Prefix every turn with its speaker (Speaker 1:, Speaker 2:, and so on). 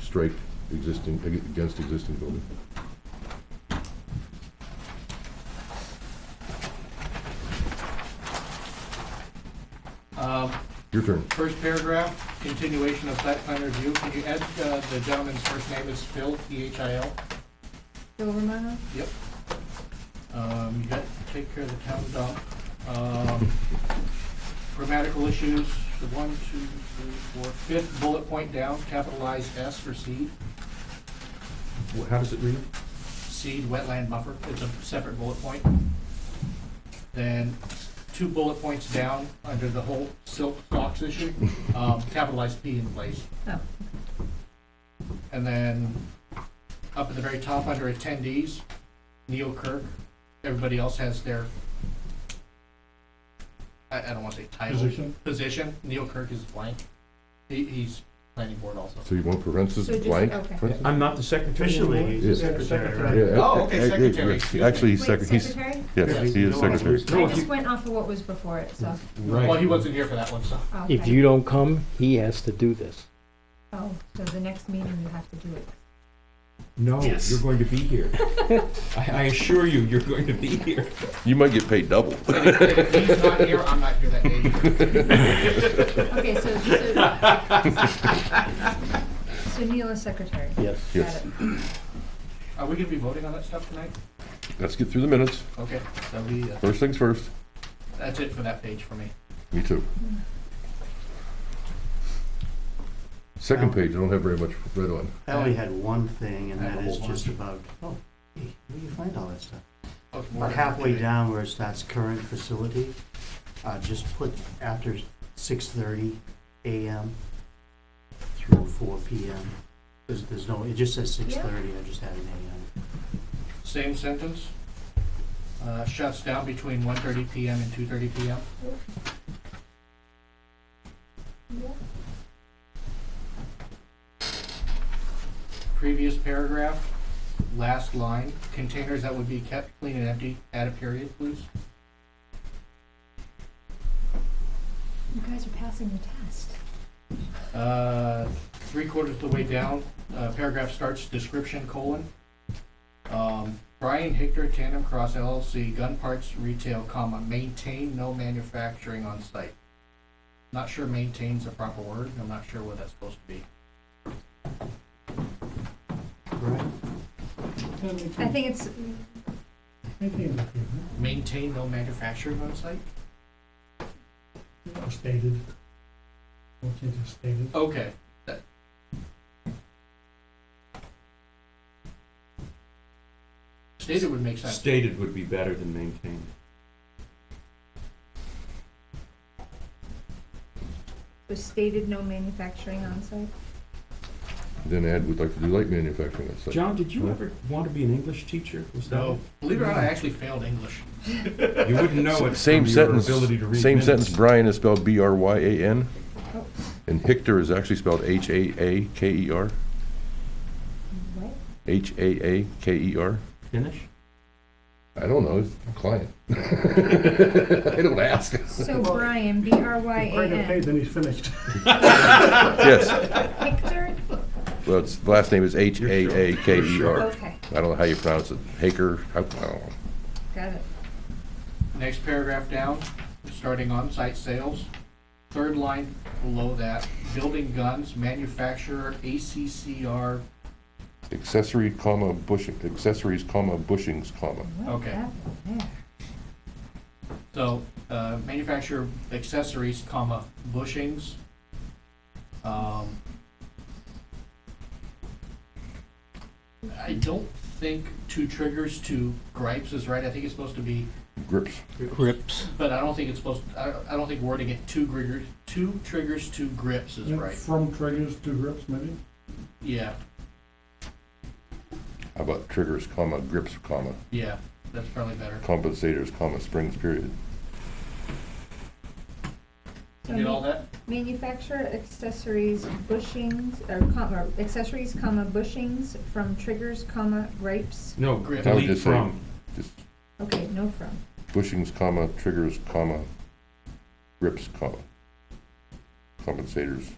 Speaker 1: strike existing, ag- against existing building.
Speaker 2: Uh,
Speaker 1: Your turn.
Speaker 2: First paragraph, continuation of site plan review. Can you add uh, the gentleman's first name is Phil, P-H-I-L?
Speaker 3: Bill Romano?
Speaker 2: Yep. Um, You got to take care of the town dump. Um, Grammatical issues, the one, two, three, four, fifth bullet point down, capitalize S for seed,
Speaker 1: Wh- How does it read?
Speaker 2: seed wetland buffer. It's a separate bullet point. Then two bullet points down under the whole silk stocks issue, um, capitalize P in place.
Speaker 3: Oh.
Speaker 2: And then up at the very top under attendees, Neil Kirk. Everybody else has their, I, I don't want to say title. Position? Neil Kirk is blank. He, he's planning board also.
Speaker 1: So you want parentheses
Speaker 3: So just-
Speaker 1: blank?
Speaker 3: okay.
Speaker 1: for instance?
Speaker 4: I'm not the secretary.
Speaker 5: Officially, he's
Speaker 1: Yeah.
Speaker 5: the secretary, right?
Speaker 1: Yeah,
Speaker 2: Oh,
Speaker 1: a-
Speaker 2: okay,
Speaker 1: a- a-
Speaker 2: secretary,
Speaker 1: yes.
Speaker 2: excuse me.
Speaker 1: Actually, he's
Speaker 3: Wait,
Speaker 1: secretary, he's,
Speaker 3: secretary?
Speaker 1: yes, he is
Speaker 4: No, I'm-
Speaker 1: secretary.
Speaker 4: No,
Speaker 3: I
Speaker 4: if
Speaker 3: just
Speaker 4: you,
Speaker 3: went off of what was before it, so,
Speaker 2: Well, he wasn't here for that one, so.
Speaker 3: oh,
Speaker 5: If
Speaker 3: okay.
Speaker 5: you don't come, he has to do this.
Speaker 3: Oh, so the next meeting you have to do it.
Speaker 4: no,
Speaker 2: Yes.
Speaker 4: you're going to be here. I, I assure you, you're going to be here.
Speaker 1: You might get paid double.
Speaker 2: If- if He's not here, I'm not here that day. either.
Speaker 3: Okay, so, so. So Neil is secretary?
Speaker 5: yes.
Speaker 3: Got
Speaker 1: Yes.
Speaker 3: it.
Speaker 2: Are we gonna be voting on that stuff tonight?
Speaker 1: Let's get through the minutes.
Speaker 2: Okay, that'll be, uh,
Speaker 1: First things first.
Speaker 2: that's it for that page for me.
Speaker 1: Me too. Second page, I don't have very much read on.
Speaker 6: I only had one thing, and
Speaker 2: I have
Speaker 6: that
Speaker 2: a
Speaker 6: is
Speaker 2: whole
Speaker 6: just about, oh, hey, where do you find all that stuff?
Speaker 2: Okay,
Speaker 6: About halfway down where it starts current facility, uh, just put after six thirty AM through four PM. There's, there's no, it just says six thirty, I just added AM.
Speaker 2: Same sentence, uh, shuts down between 1:30 PM and 2:30 PM.
Speaker 3: Yeah.
Speaker 2: Previous paragraph, last line, containers that would be kept clean and empty, add a period, please.
Speaker 3: You guys are passing the test.
Speaker 2: Uh, Three quarters of the way down, uh, paragraph starts description colon. Um, Brian Hictor, Tandem Cross LLC, gun parts retail, comma, maintain no manufacturing on site. Not sure maintain's the proper word, I'm not sure what that's supposed to be.
Speaker 6: Right?
Speaker 3: I think it's,
Speaker 2: Maintain no manufacturing on site?
Speaker 7: stated. Okay, just stated.
Speaker 2: Okay. that- Stated would make sense.
Speaker 4: Stated would be better than maintained.
Speaker 3: was stated no manufacturing on site.
Speaker 1: Then add, we'd like to do light manufacturing on site.
Speaker 4: John, did you ever want to be an English teacher? Was that
Speaker 2: So, believe it or not, I actually failed English.
Speaker 4: you wouldn't know it
Speaker 1: Same
Speaker 4: from
Speaker 1: sentence,
Speaker 4: your ability to read
Speaker 1: same
Speaker 4: minutes.
Speaker 1: sentence, Brian is spelled B-R-Y-A-N, and Hictor is actually spelled H-A-A-K-E-R,
Speaker 3: What?
Speaker 1: H-A-A-K-E-R.
Speaker 4: Finish.
Speaker 1: E I don't know, it's a client. I don't ask.
Speaker 3: So Brian, B R Y A
Speaker 7: Quite okay,
Speaker 3: N.
Speaker 7: then he's finished.
Speaker 1: Yes,
Speaker 3: Hector?
Speaker 1: well, it's, the last name is H-A-A-K-E-R.
Speaker 3: Okay,
Speaker 1: E I don't know how you pronounce it, Haker, I I don't know.
Speaker 3: got it.
Speaker 2: Next paragraph down, starting on-site sales. Third line below that, building guns, manufacturer, ACCR.
Speaker 1: Accessory, comma, bushing, accessories, comma, bushings, comma.
Speaker 3: What
Speaker 2: Okay.
Speaker 3: happened there?
Speaker 2: So, uh, manufacturer accessories, comma, bushings. Um, I don't think two triggers to gripes is right. I think it's supposed to be
Speaker 1: Grips.
Speaker 5: Grips.
Speaker 2: But I don't think it's supposed, I, I don't think wording it two triggers, two triggers, two grips is right.
Speaker 7: From triggers to grips, maybe?
Speaker 2: Yeah,
Speaker 1: How about triggers, comma, grips, comma,
Speaker 2: yeah, that's probably better.
Speaker 1: compensators, comma, springs, period.
Speaker 3: So
Speaker 2: You get all that?
Speaker 3: Manufacturer accessories bushings, or comma, accessories comma bushings from triggers comma gripes.
Speaker 4: No,
Speaker 2: Grip.
Speaker 1: I would
Speaker 4: delete
Speaker 1: just say-
Speaker 4: from.
Speaker 1: Just
Speaker 3: Okay, no from.
Speaker 1: bushings, comma, triggers, comma, grips, comma, compensators,